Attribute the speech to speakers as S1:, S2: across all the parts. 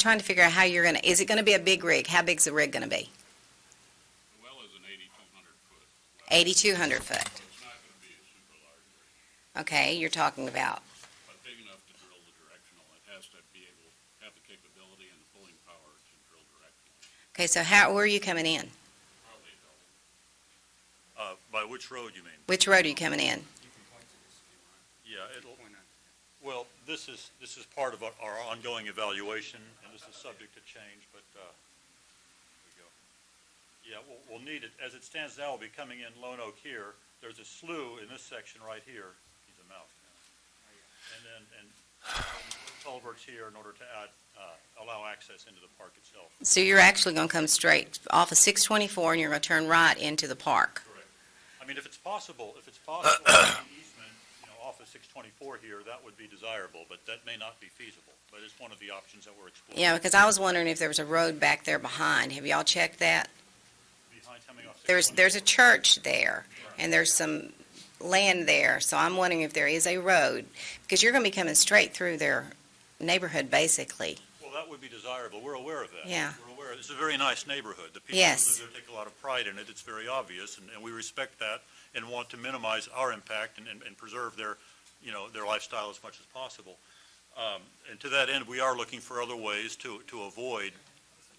S1: trying to figure out how you're gonna, is it gonna be a big rig? How big's the rig gonna be?
S2: Well, is an eighty-two hundred foot,
S1: Eighty-two hundred foot.
S2: so it's not gonna be a super large rig,
S1: Okay, you're talking about,
S2: but big enough to drill the directional. It has to be able, have the capability and the pulling power to drill directional,
S1: okay, so how, where are you coming in?
S2: probably a double.
S3: Uh, by which road you mean?
S1: Which road are you coming in?
S3: Yeah, it'll, well, this is, this is part of our, our ongoing evaluation, and this is subject to change, but, uh, here we go. Yeah, we'll, we'll need it, as it stands now, we'll be coming in Lone Oak here, there's a slew in this section right here, he's a mouth. And then, and culverts here in order to add, uh, allow access into the park itself.
S1: So you're actually gonna come straight off of six twenty-four and you're gonna turn right into the park?
S3: I mean, if it's possible, if it's possible, an easement, you know, off of six twenty-four here, that would be desirable, but that may not be feasible. But it's one of the options that we're exploring.
S1: Yeah, because I was wondering if there was a road back there behind. Have y'all checked that?
S3: Behind coming off
S1: There's,
S3: 624.
S1: there's a church there, and there's some land there, so I'm wondering if there is a road, because you're gonna be coming straight through their neighborhood, basically.
S3: Well, that would be desirable. We're aware of that.
S1: Yeah.
S3: We're aware. It's a very nice neighborhood. The people who
S1: Yes.
S3: live there take a lot of pride in it. It's very obvious, and, and we respect that and want to minimize our impact and, and- and preserve their, you know, their lifestyle as much as possible. Um, and to that end, we are looking for other ways to, to avoid,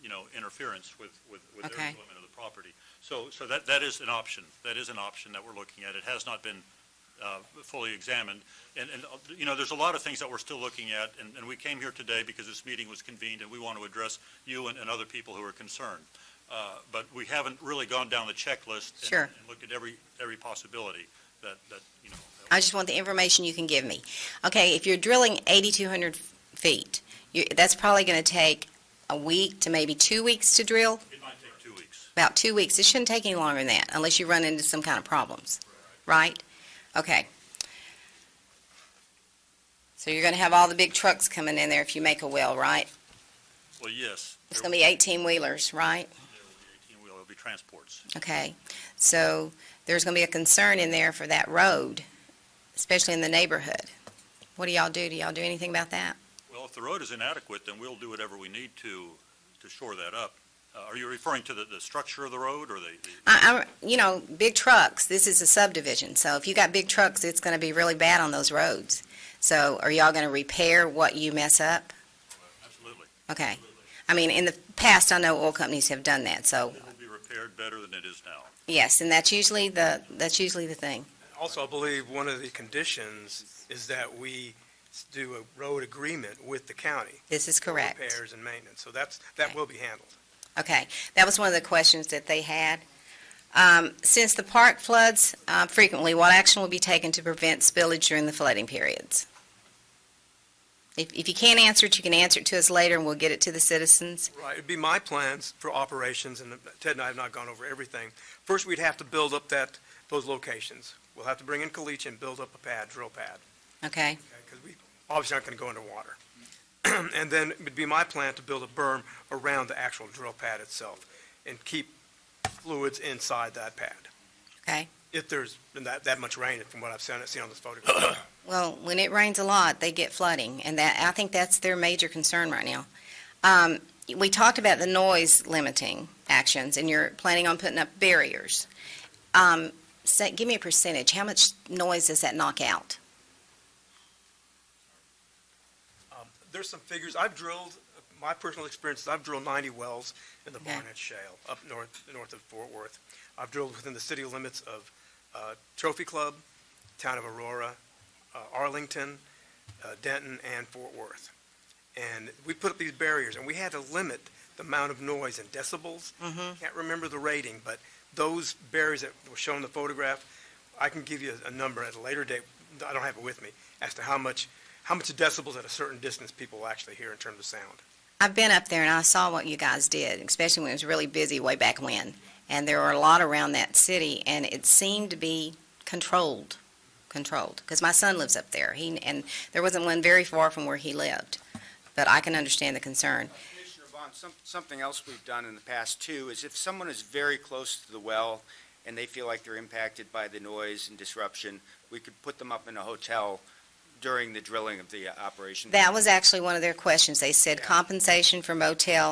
S3: you know, interference with, with, with their
S1: Okay.
S3: employment of the property. So, so that, that is an option. That is an option that we're looking at. It has not been, uh, fully examined. And, and, uh, you know, there's a lot of things that we're still looking at, and, and we came here today because this meeting was convened, and we want to address you and, and other people who are concerned. Uh, But we haven't really gone down the checklist. and-
S1: Sure.
S3: And looked at every, every possibility that, that, you know. that-
S1: I just want the information you can give me. Okay, if you're drilling 8,200 feet, you- that's probably gonna take a week to maybe two weeks to drill,
S3: It might take two weeks.
S1: about two weeks. It shouldn't take any longer than that, unless you run into some kind of problems, right? Okay. So you're gonna have all the big trucks coming in there if you make a well, right?
S3: Well, yes.
S1: It's gonna be eighteen wheelers, right?
S3: Well, it'll be transports.
S1: Okay, so there's gonna be a concern in there for that road, especially in the neighborhood. What do y'all do? Do y'all do anything about that?
S3: Well, if the road is inadequate, then we'll do whatever we need to, to shore that up. Uh, Are you referring to the, the structure of the road or the? the-
S1: I, I, you know, big trucks, this is a subdivision, so if you got big trucks, it's gonna be really bad on those roads. So are y'all gonna repair what you mess up?
S3: Absolutely.
S1: Okay, I mean, in the past, I know oil companies have done that, so,
S3: It will be repaired better than it is now.
S1: yes, and that's usually the, that's usually the thing.
S4: Also, I believe one of the conditions is that we s- do a road agreement with the county.
S1: This is
S4: for
S1: correct.
S4: Repairs and maintenance, so that's, that
S1: Right.
S4: will be handled.
S1: Okay, that was one of the questions that they had. Um, Since the park floods uh, frequently, what action will be taken to prevent spillage during the flooding periods? If if you can't answer it, you can answer it to us later, and we'll get it to the citizens.
S4: Right, it'd be my plans for operations, and Ted and I have not gone over everything. First, we'd have to build up that, those locations. We'll have to bring in caliche and build up a pad, drill pad,
S1: Okay,
S4: because we obviously aren't going to go underwater. And then it'd be my plan to build a berm around the actual drill pad itself and keep fluids inside that pad.
S1: okay.
S4: If there's been that, that much rain, from what I've seen, seen on this photograph.
S1: Well, when it rains a lot, they get flooding, and that, I think that's their major concern right now. Um, We talked about the noise limiting actions, and you're planning on putting up barriers. Um, so Give me a percentage, how much noise does that knock out?
S4: Um, There's some figures, I've drilled, my personal experience, is I've drilled 90 wells in the
S1: Okay.
S4: Barnett Shale, up north, north of Fort Worth. I've drilled within the city limits of uh, Trophy Club, Town of Aurora, uh, Arlington, uh, Denton, and Fort Worth. And we put up these barriers, and we had to limit the amount of noise in decibels. Can't remember the rating, but those barriers that were shown in the photograph, I can give you a number at a later date, I don't have it with me, as to how much how much decibels at a certain distance people will actually hear in terms of sound.
S1: I've been up there and I saw what you guys did, especially when it was really busy way back when. And there were a lot around that city and it seemed to be controlled, controlled. Because my son lives up there. He, and there wasn't one very far from where he lived. But I can understand the concern.
S5: Commissioner Vaughn, some- something else we've done in the past too is if someone is very close to the well and they feel like they're impacted by the noise and disruption, we could put them up in a hotel during the drilling of the uh, operation.
S1: That was actually one of their questions. They said
S5: Yeah.
S1: compensation for motel